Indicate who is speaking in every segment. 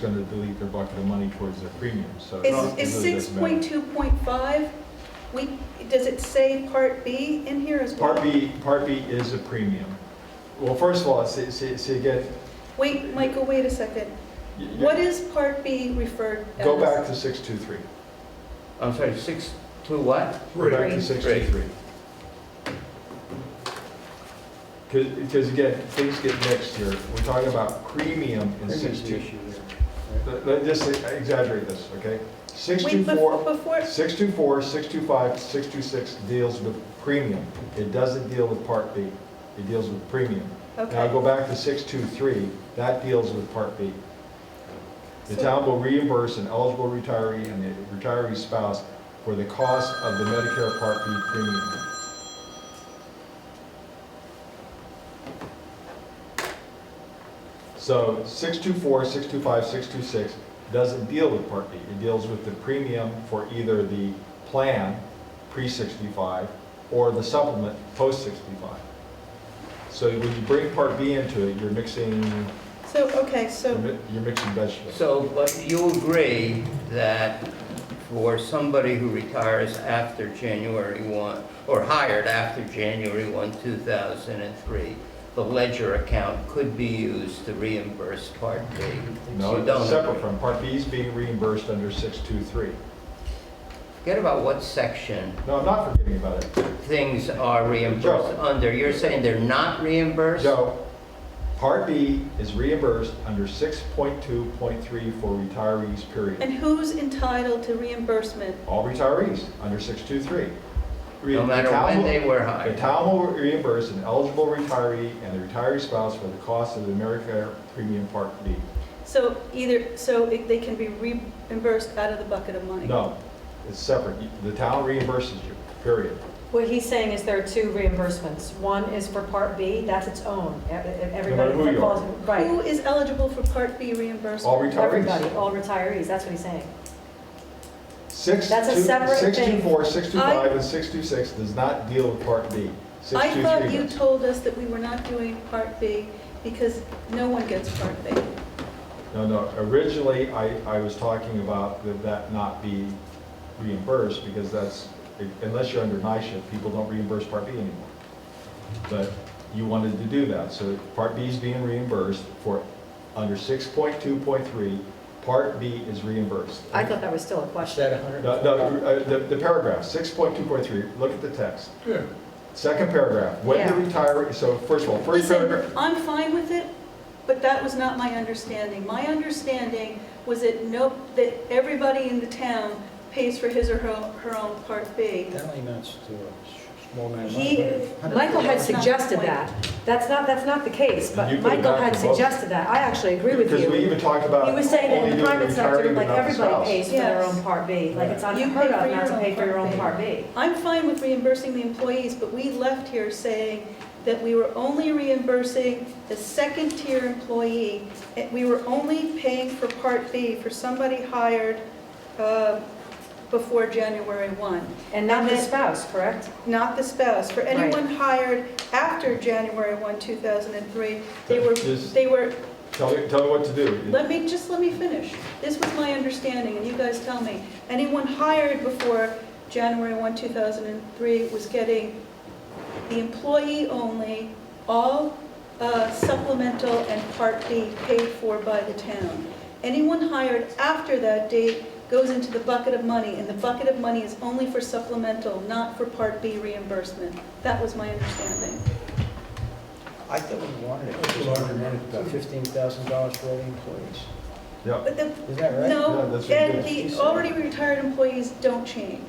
Speaker 1: gonna delete their bucket of money towards their premium, so. it
Speaker 2: Is,
Speaker 1: really
Speaker 2: is six
Speaker 1: doesn't
Speaker 2: point
Speaker 1: matter.
Speaker 2: two point five, we, does it say part B in here as well?
Speaker 1: Part B, Part B is a premium. Well, first of all, see, see, see again.
Speaker 2: Wait, Michael, wait a second.
Speaker 1: you- you-
Speaker 2: What is part B referred as?
Speaker 1: Go back to six two three.
Speaker 3: I'm sorry, six to what?
Speaker 1: Go back to
Speaker 4: Three.
Speaker 1: six two three. Because, again, things get mixed here. We're talking about premium in
Speaker 3: There's an
Speaker 1: six two.
Speaker 3: issue there.
Speaker 1: Let, let- just exaggerate this, okay? Six two
Speaker 2: Wait,
Speaker 1: four.
Speaker 2: bef- before,
Speaker 1: 624, 625, 626 deals with premium. It doesn't deal with Part B. It deals with premium. Now,
Speaker 2: okay.
Speaker 1: go back to 623, that deals with Part B. The
Speaker 2: So-
Speaker 1: town will reimburse an eligible retiree and the retiree's spouse for the cost of the Medicare Part B premium. So 624, 625, 626 doesn't deal with Part B. It deals with the premium for either the plan pre-65 or the supplement post-65. So when you bring Part B into it, you're mixing,
Speaker 2: So, okay,
Speaker 1: you're
Speaker 2: so,
Speaker 1: mi- you're mixing vegetables.
Speaker 3: So, but you agree that for somebody who retires after January 1, or hired after January 1, 2003, the ledger account could be used to reimburse Part B?
Speaker 1: No,
Speaker 3: You don't
Speaker 1: it's separate
Speaker 3: agree.
Speaker 1: from, Part B is being reimbursed under 623.
Speaker 3: Forget about what section
Speaker 1: No, I'm not forgetting about it.
Speaker 3: things are reimbursed under. You're saying they're not reimbursed?
Speaker 1: So, Part B is reimbursed under 6.2.3 for retirees, period.
Speaker 2: and who's entitled to reimbursement?
Speaker 1: all retirees under 623.
Speaker 3: No matter
Speaker 1: The town
Speaker 3: when
Speaker 1: will-
Speaker 3: they were
Speaker 1: The
Speaker 3: hired?
Speaker 1: town will reimburse an eligible retiree and the retiree spouse for the cost of the Medicare Premium Part B.
Speaker 2: So either, so it- they can be reimbursed out of the bucket of money?
Speaker 1: No, it's separate. The town reimburses you, period.
Speaker 4: What he's saying is there are two reimbursements. One is for Part B, that's its own. E- e- Everybody
Speaker 1: who
Speaker 4: that
Speaker 1: you
Speaker 4: falls, right,
Speaker 2: Who is eligible for part B reimbursement?
Speaker 1: All retirees.
Speaker 4: everybody, all retirees, that's what he's saying.
Speaker 1: Six,
Speaker 4: That's a
Speaker 1: two-
Speaker 4: separate thing.
Speaker 1: 624, 625,
Speaker 2: I-
Speaker 1: and 626 does not deal with Part B.
Speaker 2: I thought
Speaker 1: 623
Speaker 2: you
Speaker 1: does.
Speaker 2: told us that we were not doing part B because no one gets part B.
Speaker 1: No, no, originally, I, I was talking about that that not be reimbursed, because that's, unless you're under NISHA, people don't reimburse Part B anymore. But you wanted to do that, so Part B is being reimbursed for, under 6.2.3, Part B is reimbursed.
Speaker 4: I thought that was still a question.
Speaker 5: that a hundred?
Speaker 1: No, no, uh, the the paragraph, 6.2.3, look at the text.
Speaker 5: Yeah.
Speaker 1: Second paragraph, when the
Speaker 4: Yeah.
Speaker 1: retiree, so first of all, first
Speaker 2: Listen,
Speaker 1: paragraph.
Speaker 2: I'm fine with it, but that was not my understanding. My understanding was that no, that everybody in the town pays for his or her her own part B.
Speaker 5: That only amounts to a small amount of money.
Speaker 4: He, Michael had suggested that. That's not, that's not the case,
Speaker 1: You
Speaker 4: but
Speaker 1: could
Speaker 4: Michael
Speaker 1: have
Speaker 4: had
Speaker 1: both.
Speaker 4: suggested that. I actually agree with
Speaker 1: Because we
Speaker 4: you.
Speaker 1: even talked about.
Speaker 4: He was saying that
Speaker 1: only
Speaker 4: in the
Speaker 1: doing
Speaker 4: private sector,
Speaker 1: retiree,
Speaker 4: like,
Speaker 1: not the
Speaker 4: everybody
Speaker 1: spouse.
Speaker 4: pays for their
Speaker 2: Yes.
Speaker 4: own Part B. Like, it's
Speaker 2: You
Speaker 4: unheard
Speaker 2: pay for
Speaker 4: of
Speaker 2: your
Speaker 4: not to
Speaker 2: own
Speaker 4: pay for your
Speaker 2: Part
Speaker 4: own
Speaker 2: B.
Speaker 4: Part B.
Speaker 2: I'm fine with reimbursing the employees, but we left here saying that we were only reimbursing the second-tier employee. and We were only paying for Part B for somebody hired uh, before January 1,
Speaker 4: And not
Speaker 2: And
Speaker 4: the
Speaker 2: then-
Speaker 4: spouse, correct?
Speaker 2: not the spouse. For anyone hired after January 1, 2003, they were,
Speaker 1: Just-
Speaker 2: they were,
Speaker 1: Tell me, tell me what to do.
Speaker 2: let me, just let me finish. This was my understanding, and you guys tell me. Anyone hired before January 1, 2003 was getting the employee only, all uh, supplemental and Part B paid for by the town. Anyone hired after that date goes into the bucket of money, and the bucket of money is only for supplemental, not for Part B reimbursement. That was my understanding.
Speaker 5: I thought we wanted it, it was about fifteen thousand dollars for all the employees.
Speaker 1: Yeah,
Speaker 2: But the
Speaker 5: Is that right?
Speaker 1: Yeah,
Speaker 2: No,
Speaker 1: that's what
Speaker 2: and
Speaker 1: you
Speaker 2: the
Speaker 5: did.
Speaker 2: already retired employees don't change.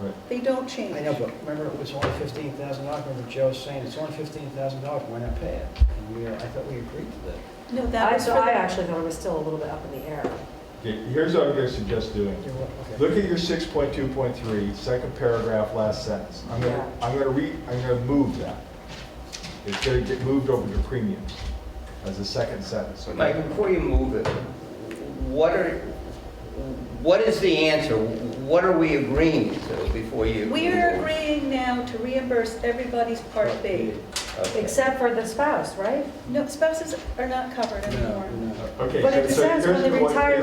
Speaker 1: Right.
Speaker 2: They don't change.
Speaker 5: I know, but remember, it was only fifteen thousand dollars, remember Joe saying, it's only fifteen thousand dollars, why not pay it? And we, uh, I thought we agreed to that.
Speaker 2: No, that
Speaker 4: I,
Speaker 2: was for
Speaker 4: so
Speaker 2: the.
Speaker 4: I actually thought it was still a little bit up in the air.
Speaker 1: Okay, here's what I'm gonna suggest doing.
Speaker 5: Yeah, well, okay.
Speaker 1: Look at your 6.2.3, second paragraph, last sentence. I'm gonna, I'm gonna re, I'm gonna move that. It's gonna get moved over to premiums as a second sentence. okay?
Speaker 3: Mike, before you move it, what are, what is the answer? What are we agreeing to before you?
Speaker 2: We are agreeing now to reimburse everybody's Part B.
Speaker 3: Okay.
Speaker 4: Except for the spouse, right?
Speaker 2: No, spouses are not covered
Speaker 5: No,
Speaker 2: anymore.
Speaker 5: no.
Speaker 1: Okay.
Speaker 4: But
Speaker 1: so-
Speaker 4: it
Speaker 1: so
Speaker 4: says when
Speaker 1: here's
Speaker 4: the
Speaker 1: what-
Speaker 4: retiree